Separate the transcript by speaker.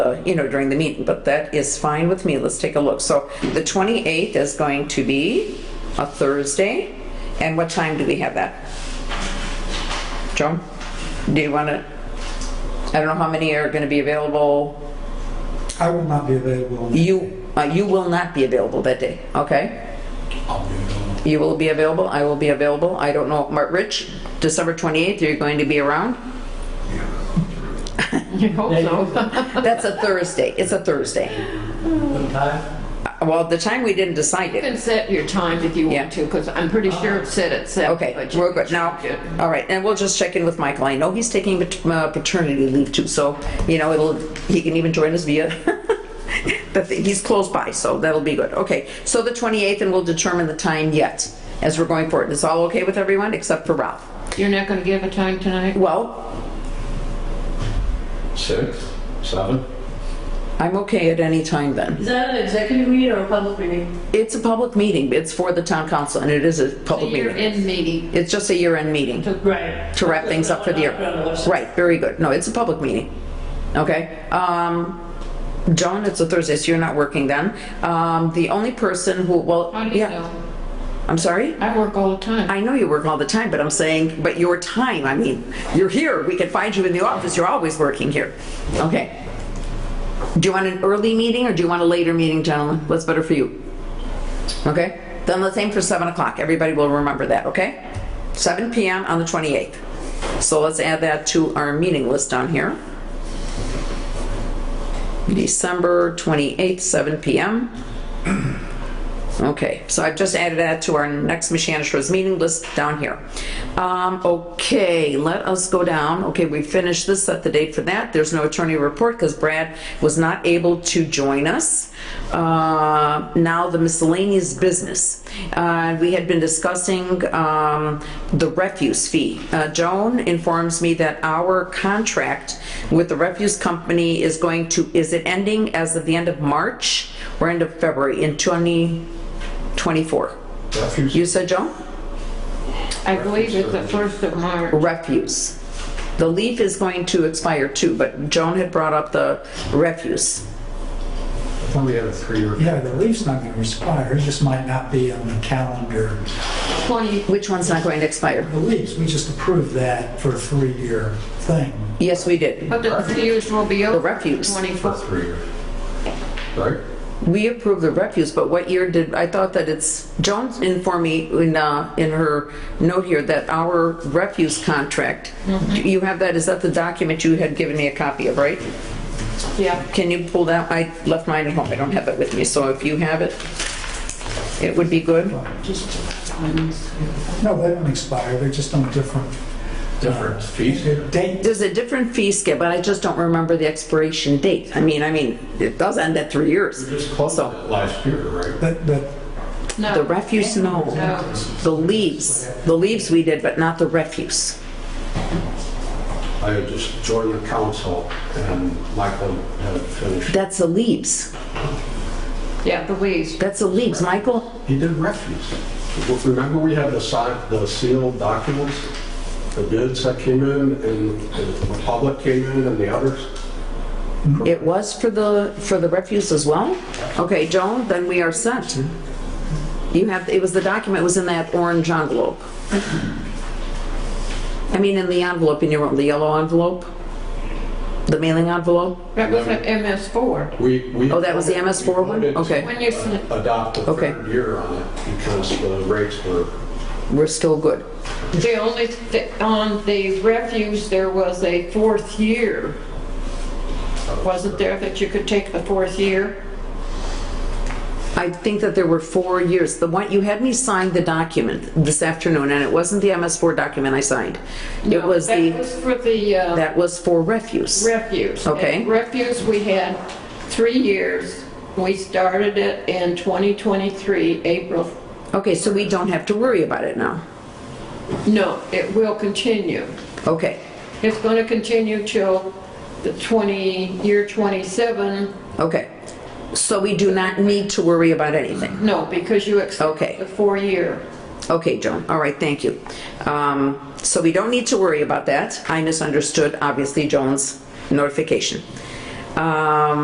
Speaker 1: uh, you know, during the meeting, but that is fine with me. Let's take a look. So the 28th is going to be a Thursday, and what time do we have that? Joan, do you want to, I don't know how many are going to be available.
Speaker 2: I will not be available. on that day.
Speaker 1: You, uh, you will not be available that day, okay?
Speaker 2: I'll be available.
Speaker 1: You will be available, I will be available. I don't know, Mark, Rich, December 28th, you're going to be around? That's a Thursday, it's a Thursday. Uh, Well, the time we didn't decide
Speaker 3: You
Speaker 1: it.
Speaker 3: can set your time if you
Speaker 1: Yeah.
Speaker 3: want to, because I'm pretty sure it's set at seven.
Speaker 1: Okay,
Speaker 3: but you
Speaker 1: we're good.
Speaker 3: can
Speaker 1: Now,
Speaker 3: change it.
Speaker 1: all right, and we'll just check in with Michael. I know he's taking pat- uh, paternity leave too, so, you know, it'll, he can even join us via, the thing- he's close by, so that'll be good. Okay, so the 28th, and we'll determine the time yet as we're going forward. Is all okay with everyone except for Ralph?
Speaker 3: You're not going to give a time tonight?
Speaker 1: Well,
Speaker 4: Six, seven.
Speaker 1: I'm okay at any time then.
Speaker 5: Is that an executive meeting or a public meeting?
Speaker 1: It's a public meeting, it's for the town council, and it is a
Speaker 3: So
Speaker 1: public
Speaker 3: you're
Speaker 1: meeting.
Speaker 3: in meeting.
Speaker 1: It's just a year-end meeting.
Speaker 5: Right.
Speaker 1: to wrap things up for the
Speaker 5: Put it on
Speaker 1: year.
Speaker 5: the website.
Speaker 1: Right, very good. No, it's a public meeting. Okay? Um, Joan, it's a Thursday, so you're not working then. Um, the only person who, well,
Speaker 3: How do you
Speaker 1: yeah,
Speaker 3: know?
Speaker 1: I'm sorry?
Speaker 3: I work all the time.
Speaker 1: I know you work all the time, but I'm saying, but your time, I mean, you're here, we can find you in the office, you're always working here. Okay. Do you want an early meeting or do you want a later meeting, gentlemen? What's better for you? Okay? Then let's aim for 7 o'clock. Everybody will remember that, okay? 7 PM on the 28th. So let's add that to our meeting list down here. December 28th, 7 PM. Okay, so I've just added that to our next Michanishro's meeting list down here. Um, okay, let us go down. Okay, we finished this, set the date for that. There's no attorney report because Brad was not able to join us. Uh, now the miscellaneous business. Uh, we had been discussing, um, the refuse fee. Uh, Joan informs me that our contract with the refuse company is going to, is it ending as of the end of March or end of February in 2024? You said, Joan?
Speaker 3: I believe it's the first of March.
Speaker 1: Refuse. The leaf is going to expire too, but Joan had brought up the refuse.
Speaker 4: I thought we had a three or.
Speaker 2: Yeah, the leaf's not going to expire, it just might not be on the calendar.
Speaker 3: Twenty,
Speaker 1: Which one's not going to expire?
Speaker 2: The leaves, we just approved that for a three-year thing.
Speaker 1: Yes, we did.
Speaker 3: but the refuse will be over.
Speaker 1: The refuse.
Speaker 4: For
Speaker 3: Twenty-four.
Speaker 4: three year. Right?
Speaker 1: We approved the refuse, but what year did, I thought that it's, Joan informed me in, uh, in her note here that our refuse contract, Do you have that, is that the document you had given me a copy of, right?
Speaker 3: Yeah.
Speaker 1: Can you pull that, I left mine at home, I don't have it with me, so if you have it, it would be good.
Speaker 2: No, they don't expire, they're just on different.
Speaker 4: Different fees?
Speaker 2: They're date,
Speaker 1: There's a different fee scale, but I just don't remember the expiration date. I mean, I mean, it does end at three years.
Speaker 4: Just close it last year, right?
Speaker 2: but, but
Speaker 3: No.
Speaker 1: The refuse, no.
Speaker 3: No.
Speaker 1: The leaves, the leaves we did, but not the refuse.
Speaker 4: I had just joined the council and Michael had finished.
Speaker 1: That's the leaves.
Speaker 3: Yeah, the leaves.
Speaker 1: That's the leaves, Michael.
Speaker 4: He did refuse. Well, Remember we had the signed, the sealed documents, the bids that came in and the public came in and the others?
Speaker 1: It was for the, for the refuse as well? Okay, Joan, then we are set. You have, it was the document was in that orange envelope. I mean, in the envelope, in your, the yellow envelope? The mailing envelope?
Speaker 3: That was an MS four.
Speaker 4: We, we.
Speaker 1: Oh, that was the MS4 one?
Speaker 4: We voted to
Speaker 1: Okay.
Speaker 3: When you, sn-
Speaker 4: Adopt the
Speaker 1: Okay.
Speaker 4: third year on it because the rates were
Speaker 1: We're still good.
Speaker 3: the only, thi- on the refuse, there was a fourth year. Wasn't there that you could take the fourth year?
Speaker 1: I think that there were four years. The one, you had me sign the document this afternoon, and it wasn't the MS4 document I signed. It
Speaker 3: No,
Speaker 1: was
Speaker 3: That
Speaker 1: the,
Speaker 3: was for the, uh,
Speaker 1: that was for refuse.
Speaker 3: refuse.
Speaker 1: Okay.
Speaker 3: And Refuse, we had three years. We started it in 2023, April.
Speaker 1: Okay, so we don't have to worry about it now.
Speaker 3: No, it will continue.
Speaker 1: Okay,
Speaker 3: It's going to continue till the 20, year 27.
Speaker 1: okay. So we do not need to worry about anything.
Speaker 3: No, because you accept
Speaker 1: Okay.
Speaker 3: the four-year.
Speaker 1: Okay, Joan, all right, thank you. Um, So we don't need to worry about that. I misunderstood, obviously, Joan's notification. Um,